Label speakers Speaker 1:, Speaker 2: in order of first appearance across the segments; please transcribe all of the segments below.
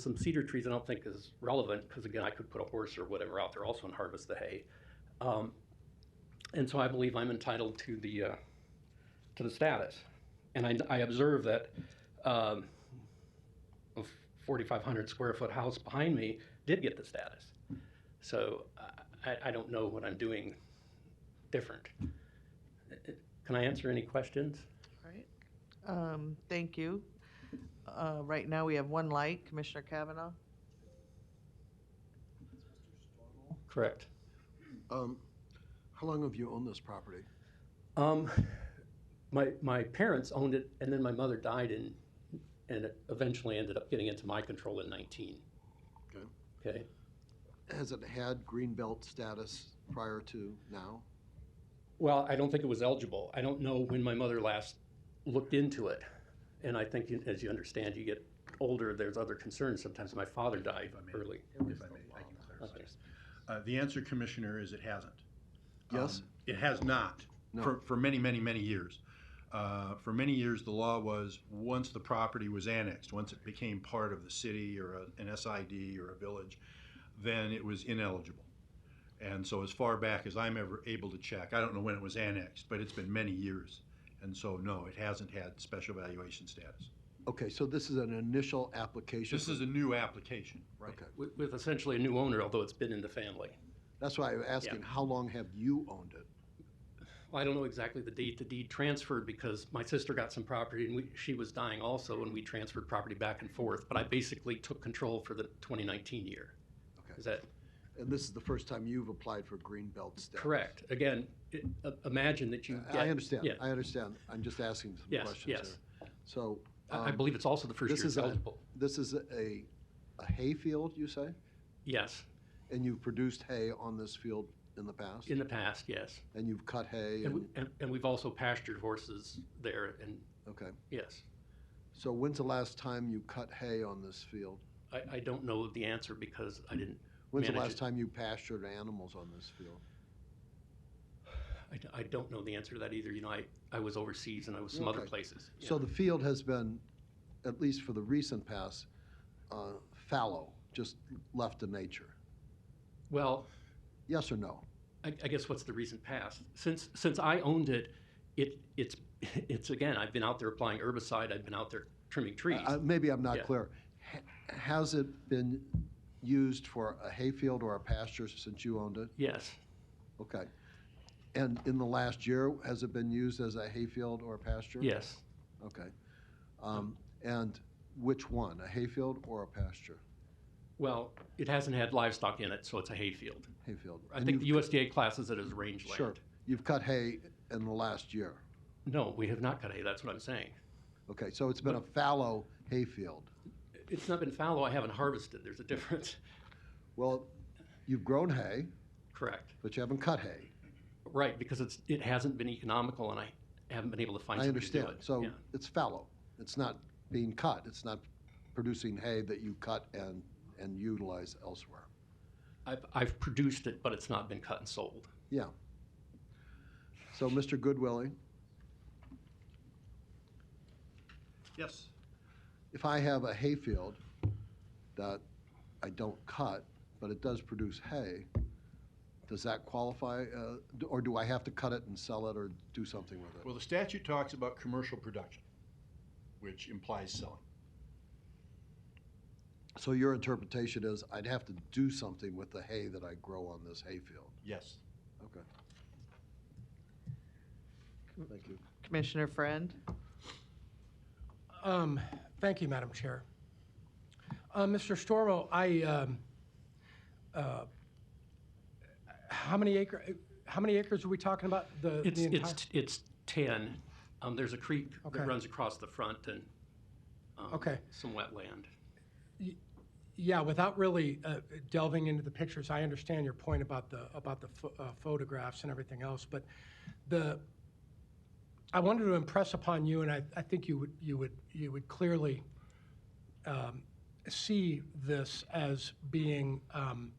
Speaker 1: Some cedar trees I don't think is relevant, because again, I could put a horse or whatever out there also and harvest the hay. Um, And so I believe I'm entitled to the, uh, to the status. And I, I observe that um, a 4,500 square foot house behind me did get the status. So I- I, I don't know what I'm doing different. Uh, Can I answer any questions?
Speaker 2: Right. Um, thank you. Uh, right now, we have one light, Commissioner Kavanaugh.
Speaker 1: Correct.
Speaker 3: Um, how long have you owned this property?
Speaker 1: Um, my my parents owned it, and then my mother died, and and it eventually ended up getting into my control in nineteen.
Speaker 3: Okay.
Speaker 1: Okay.
Speaker 3: Has it had green belt status prior to now?
Speaker 1: Well, I don't think it was eligible. I don't know when my mother last looked into it, and I think you, as you understand, you get older. There's other concerns. Sometimes my father died
Speaker 4: If I may.
Speaker 1: early.
Speaker 4: If I may, I can clarify. Uh, The answer, Commissioner, is it hasn't.
Speaker 3: Yes?
Speaker 4: Um, It has not,
Speaker 3: No.
Speaker 4: for, for many, many, many years. Uh, For many years, the law was, once the property was annexed, once it became part of the city or a- an SID or a village, then it was ineligible. And so as far back as I'm ever able to check, I don't know when it was annexed, but it's been many years. And so, no, it hasn't had special valuation status.
Speaker 3: Okay, so this is an initial application.
Speaker 4: This is a new application, right?
Speaker 3: Okay,
Speaker 1: With, with essentially a new owner, although it's been in the family.
Speaker 3: that's why I'm asking, how long have you owned it?
Speaker 1: Well, I don't know exactly the date the deed transferred because my sister got some property and we, she was dying also, and we transferred property back and forth. But I basically took control for the 2019 year.
Speaker 3: Okay.
Speaker 1: Is that
Speaker 3: And this is the first time you've applied for green belt status?
Speaker 1: correct? Again, it, uh, imagine that you.
Speaker 3: I-
Speaker 1: get-
Speaker 3: I understand,
Speaker 1: Yeah,
Speaker 3: I understand. I'm just asking some
Speaker 1: Yes,
Speaker 3: questions
Speaker 1: yes.
Speaker 3: here. So.
Speaker 1: I, I
Speaker 3: um,
Speaker 1: believe it's also the first
Speaker 3: this
Speaker 1: year it's
Speaker 3: is a-
Speaker 1: eligible.
Speaker 3: This is a, a hay field, you say?
Speaker 1: Yes,
Speaker 3: And you've produced hay on this field in the past?
Speaker 1: in the past, yes,
Speaker 3: And you've cut hay
Speaker 1: and, we,
Speaker 3: and,
Speaker 1: and, and we've also pastured horses there, and
Speaker 3: okay.
Speaker 1: yes,
Speaker 3: So when's the last time you cut hay on this field?
Speaker 1: I, I don't know the answer because I didn't.
Speaker 3: When's the
Speaker 1: manage
Speaker 3: last
Speaker 1: it.
Speaker 3: time you pastured animals on this field?
Speaker 1: I d- I, don't know the answer to that either. You know, I, I was overseas and I was some other
Speaker 3: Okay.
Speaker 1: places.
Speaker 3: So the field has been, at least for the recent past, uh, fallow, just left to nature.
Speaker 1: well.
Speaker 3: Yes or no?
Speaker 1: I, I guess what's the recent past? Since since I owned it, it it's it's again. I've been out there applying herbicide. I've been out there trimming trees.
Speaker 3: Uh, Maybe I'm
Speaker 1: Yeah.
Speaker 3: not clear. Ha- Has it been used for a hayfield or a pasture since you owned it?
Speaker 1: yes,
Speaker 3: Okay. And in the last year, has it been used as a hayfield or a pasture?
Speaker 1: yes.
Speaker 3: Okay. Um, And which one, a hayfield or a pasture?
Speaker 1: Well, it hasn't had livestock in it, so it's a hayfield.
Speaker 3: Hayfield.
Speaker 1: I
Speaker 3: And
Speaker 1: think
Speaker 3: you've-
Speaker 1: the USDA classes it as rangeland.
Speaker 3: Sure. You've cut hay in the last year.
Speaker 1: No, we have not cut hay. That's what I'm saying.
Speaker 3: Okay, so it's been a fallow hayfield.
Speaker 1: It's not been fallow. I haven't harvested. There's a difference.
Speaker 3: Well, you've grown hay,
Speaker 1: Correct.
Speaker 3: but you haven't cut hay.
Speaker 1: Right, because it's it hasn't been economical, and I haven't been able to find.
Speaker 3: I
Speaker 1: somebody to do
Speaker 3: understand.
Speaker 1: it.
Speaker 3: So
Speaker 1: Yeah.
Speaker 3: it's fallow. It's not being cut. It's not producing hay that you cut and, and utilize elsewhere.
Speaker 1: I've I've produced it, but it's not been cut and sold.
Speaker 3: Yeah. So, Mr. Goodwillie,
Speaker 4: Yes.
Speaker 3: if I have a hayfield that I don't cut, but it does produce hay, does that qualify, uh, d- or do I have to cut it and sell it or do something with it?
Speaker 4: Well, the statute talks about commercial production, which implies selling.
Speaker 3: So your interpretation is I'd have to do something with the hay that I grow on this hayfield?
Speaker 4: Yes.
Speaker 3: Okay. Thank you.
Speaker 2: Commissioner Friend?
Speaker 5: Um, Thank you, Madam Chair. Uh, Mr. Stormo, I, um, uh, how many acre, how many acres are we talking about? The
Speaker 1: It's,
Speaker 5: the entire.
Speaker 1: it's, it's ten. Um, there's a creek
Speaker 5: Okay.
Speaker 1: that runs across the front and, um,
Speaker 5: Okay.
Speaker 1: some wetland.
Speaker 5: Yeah, without really uh, delving into the pictures, I understand your point about the, about the pho- uh, photographs and everything else, but the, I wanted to impress upon you, and I, I think you would, you would, you would clearly um, see this as being um,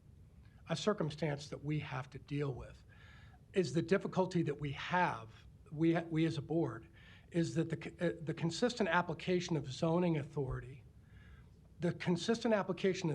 Speaker 5: a circumstance that we have to deal with. Is the difficulty that we have, we, ha- we as a board, is that the, c- uh, the consistent application of zoning authority the consistent application